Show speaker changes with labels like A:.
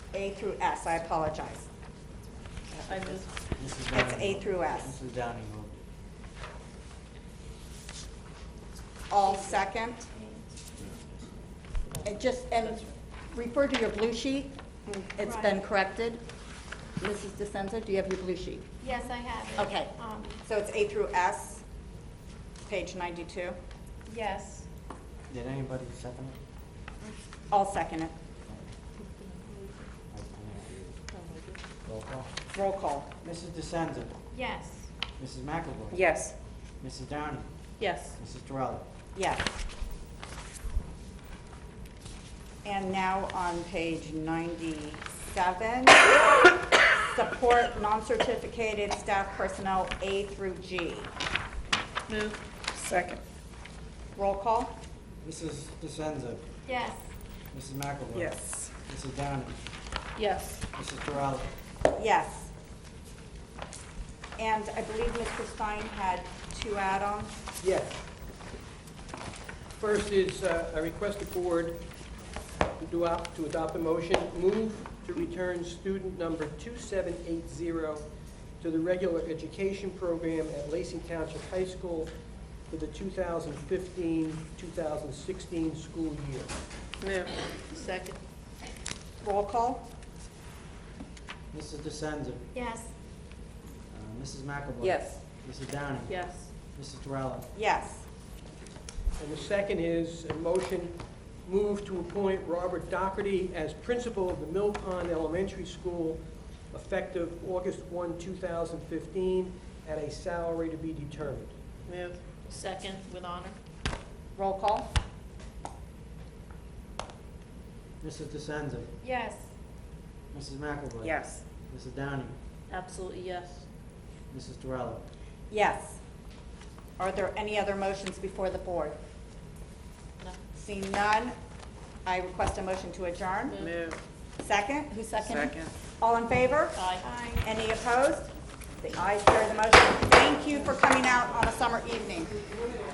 A: A through S, I apologize.
B: I move,
C: Mrs.
A: That's
C: Downing
A: A through S.
C: Mrs. Downing moved it.
A: All second. And just, and refer to your blue sheet, it's been
D: Right.
A: corrected. Mrs. DeSenza, do you have your blue sheet?
D: Yes, I have it.
A: Okay.
D: Um,
A: So it's A through S, page 92.
B: yes,
C: Did anybody second it?
A: I'll second it.
C: I can't hear you. Roll call.
A: Roll call.
C: Mrs. DeSenza.
D: Yes,
C: Mrs. McAvoy.
A: Yes.
C: Mrs. Downing.
B: yes,
C: Mrs. Terrell.
A: Yes. And now on page 97, support non-certificated staff personnel A through G.
B: move,
E: Second,
A: Roll call?
C: Mrs. DeSenza.
D: yes,
C: Mrs. McAvoy.
E: yes.
C: Mrs. Downing.
B: yes,
C: Mrs. Terrell.
A: Yes. And I believe Mr. Stein had two add-ons.
F: Yes. First is, uh, I request the board to do op- to adopt a motion, move to return student number 2780 to the regular education program at Lacey Township High School for the 2015-2016 school year.
B: move, second,
A: Roll call?
C: Mrs. DeSenza.
D: yes,
C: Uh, Mrs. McAvoy.
A: Yes.
C: Mrs. Downing.
B: yes,
C: Mrs. Terrell.
A: Yes.
F: And the second is a motion, move to appoint Robert Doherty as principal of the Mill Pond Elementary School effective August 1, 2015, at a salary to be determined.
B: move, second with honor,
A: Roll call?
C: Mrs. DeSenza.
D: yes,
C: Mrs. McAvoy.
E: Yes,
C: Mrs. Downing.
B: absolutely yes,
C: Mrs. Terrell.
A: Yes. Are there any other motions before the board?
B: no,
A: Seeing none, I request a motion to adjourn.
E: move.
A: Second? Who seconded?
E: Second.
A: All in favor?
B: aye.
D: aye.
A: Any opposed? The ayes carry the motion. Thank you for coming out on a summer evening.